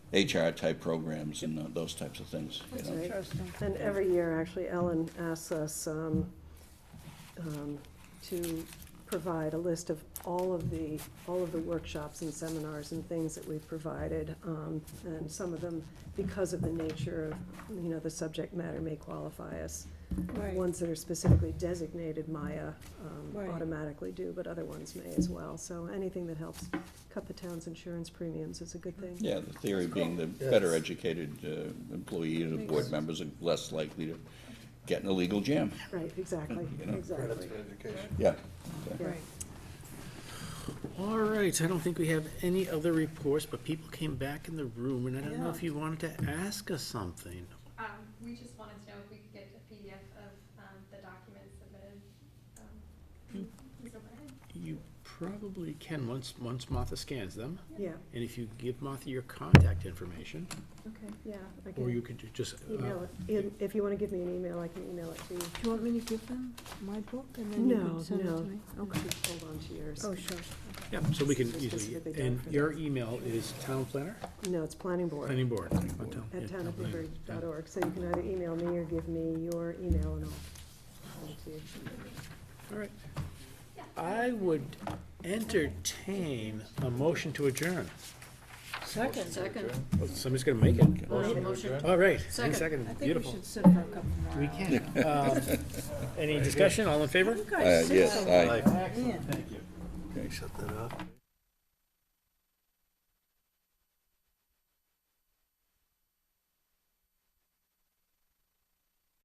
HR type programs and uh, those types of things. you know. Interesting. And every year, actually, Ellen asks us um, um, to provide a list of all of the, all of the workshops and seminars and things that we've provided. um, And some of them, because of the nature of, you know, the subject matter may qualify us. Right. Ones that are specifically designated Maya um, Right. automatically do, but other ones may as well. So anything that helps cut the town's insurance premiums is a good thing. Yeah, the theory being the Yes. better educated uh, employee and the board Makes- members are less likely to get in a legal jam. Right, exactly, You know. exactly. education. Yeah. Yeah. Right. All right, I don't think we have any other reports, but people came back in the room, and I don't know if you wanted to ask us something. Um, we just wanted to know if we could get a PDF of, um, the documents submitted, um, so go ahead. You probably can, once, once Martha scans them, Yeah, and if you give Martha your contact information, okay, yeah. I or can- you could ju- just. uh, Email it, In- if you wanna give me an email, I can email it to you. Do you want me to give them my book and then you No, can send it to no. me? Okay, hold on to yours. Oh, sure. Yeah, so we can Just easily, specifically done and for your email is town planner, No, it's planning board planning board. oh, town- yeah, at town planner, yeah. townofnewbury.org, so you can either email me or give me your email and I'll send it to you. All right. I would entertain a motion to adjourn. Second. Second. Well, Somebody's gonna make it. Motion. All right. and Second. I Second, think we beautiful. Uh, should sit for a couple more We hours. can. Um, Any discussion, all in favor? You guys Uh, sit yes, so aye. well. Man. Okay. Shut that off.